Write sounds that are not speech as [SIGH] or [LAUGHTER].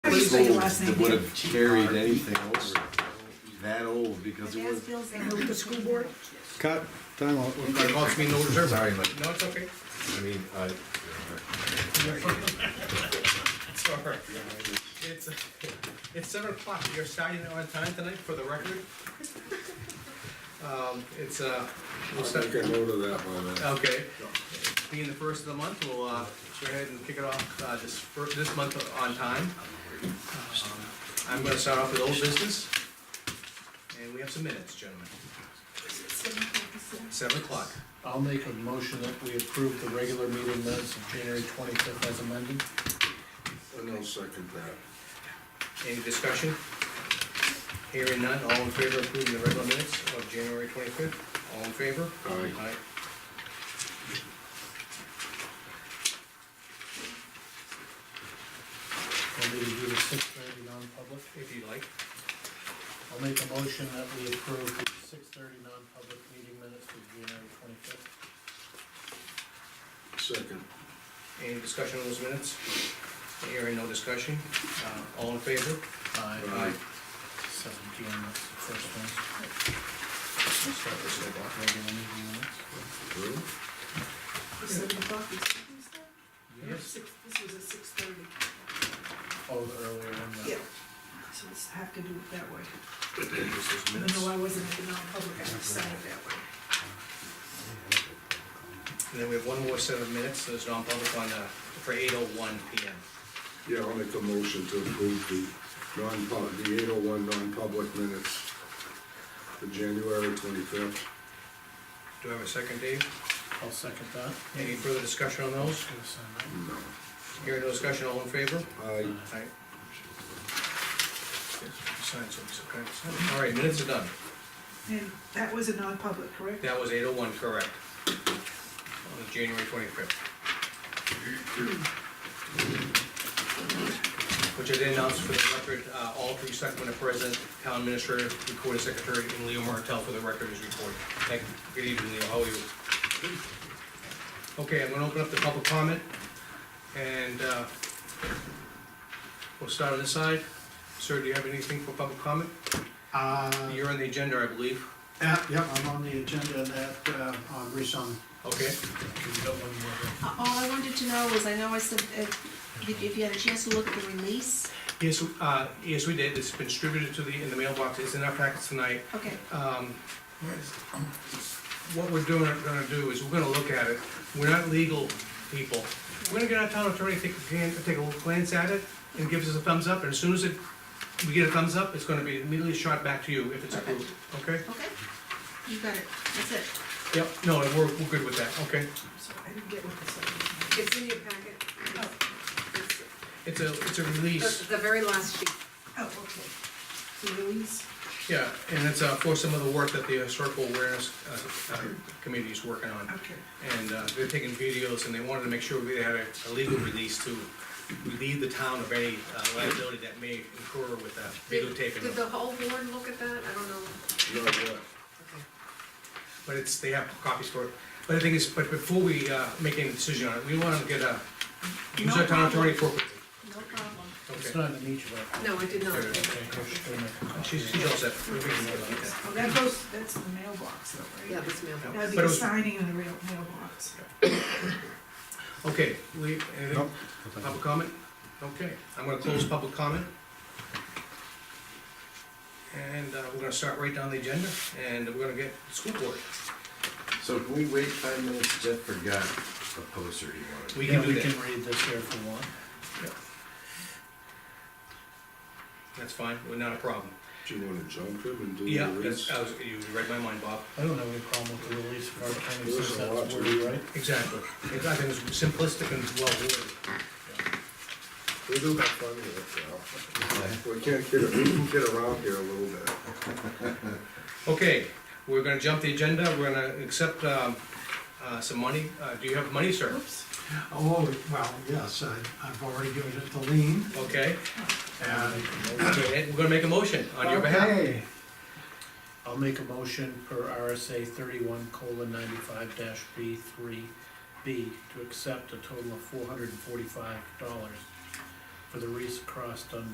years Say the old last that name. would have carried anything over, that old, because it was, Bills and with the school board? Cut, time out. It cost me no reserve. Sorry, but, No, it's okay. I mean, uh, I, It's all right. It's, it's seven o'clock. You're starting on time tonight for the record. [LAUGHS] Um, it's, uh, we'll start, Take a note of that one. uh, okay. Being the first of the month, we'll, uh, go ahead and kick it off, uh, this, fir- this month on time. Um, I'm gonna start off with old business. And we have some minutes, gentlemen. Seven o'clock. I'll make a motion that we approve the regular meeting minutes of January twenty-fifth as amended. And I'll second that. Any discussion? Hearing none, all in favor of approving the regular minutes of January twenty-fifth? All in favor? Aye. Want me to do the six thirty non-public? If you like. I'll make a motion that we approve the six thirty non-public meeting minutes of January twenty-fifth. Second. Any discussion on those minutes? Hearing no discussion, uh, all in favor? Aye. Seven P M, that's the first one. Start this over. Regular meeting minutes. Really? Seven o'clock, you said you said? Yes, Six, this was at six thirty. Oh, the earlier one. the- So let's have to do it that way. this is Even minutes. though I wasn't at the non-public, I just signed it that way. And then we have one more set of minutes, so it's non-public on, uh, for eight oh one P M. Yeah, I'll make a motion to approve the non-pub, the eight oh one non-public minutes for January twenty-fifth. Do I have a second, Dave? I'll second that. Any further discussion on those? Should have signed that. No. Hearing no discussion, all in favor? I, Alright. Sign some, okay. All right, minutes are done. And that was a non-public, correct? That was eight oh one, correct. On the January twenty-fifth. Which I did announce for the record, uh, all three selectmen are present, town administrator, recording secretary, and Leo Martell for the record is recorded. Thank you, good evening, Leo, how are you? Okay, I'm gonna open up the public comment, and, uh, we'll start on this side. Sir, do you have anything for public comment? Uh, You're on the agenda, I believe, yeah, yep, I'm on the agenda that, uh, on Rishon. okay? We've got one more. Uh, All I wanted to know was, I know I said, uh, did- if you had a chance to Oh, look at the release, Yes, uh, yes, we did, it's been distributed to the, in the mailbox, it's in our packets tonight. okay, Um, What we're doing, gonna do is, we're gonna look at it, we're not legal people. We're gonna get our town attorney, to take, a gan- take a glance at it, and give us a thumbs up, and as soon as it, we get a thumbs up, it's gonna be immediately shot back to you if it's approved, okay? okay? You got it, that's it. Yep, no, we're, we're good with that, okay? So I didn't get what this was. It's in your packet. Oh. It's- It's a, it's a It's release, the the very last sheet. Oh, okay. The release? yeah, and it's, uh, for some of the work that the historical awareness, uh, uh, committee is working on. Okay. and uh, they're taking videos, and they wanted to make sure we had a a legal release to relieve the town of any uh, liability that may incur with that Did videotaping. did the whole board look at that? I don't know. not yet. But it's, they have copies for it. But the thing is, but before we uh, make any decision on it, we want to get a, use our town attorney for. No problem. It's Okay. not in each of our. No, I did not. Okay. I should go make a copy. She's, she's all set. We're thinking about that. Oh, that goes, that's the mailbox though, Yeah, right? this mailbox. That'd be But it the was- signing in the real mailbox. Okay, we, anything, Nope. public comment? Okay, I'm gonna close public comment. And uh, we're gonna start right down the agenda, and we're gonna get school board. so can we wait five minutes, Jeff forgot a poster he wanted. We Yeah, can do we that. can read this here if you want. That's fine, we're not a problem. Do you wanna jump him and do the Yeah, release? that's, uh, I was, you read my mind, Bob. I don't have any problem with the release of our attorney, There's since a lot that's to wordy, read. right? Exactly. It- I think it's simplistic and well worded. We do have fun with it, Val. We can't get, we can get around here a little bit. Okay, we're gonna jump the agenda, we're gonna accept, um, uh, some money. Uh, do you have money, sir? Oops. Oh, well, yes, I, I've already given it to Lean, Okay, Uh, and Go ahead. we're gonna make a motion on your behalf. Okay, I'll make a motion per RSA thirty-one colon ninety-five dash B three B to accept a total of four hundred and forty-five dollars for the Reese Cross done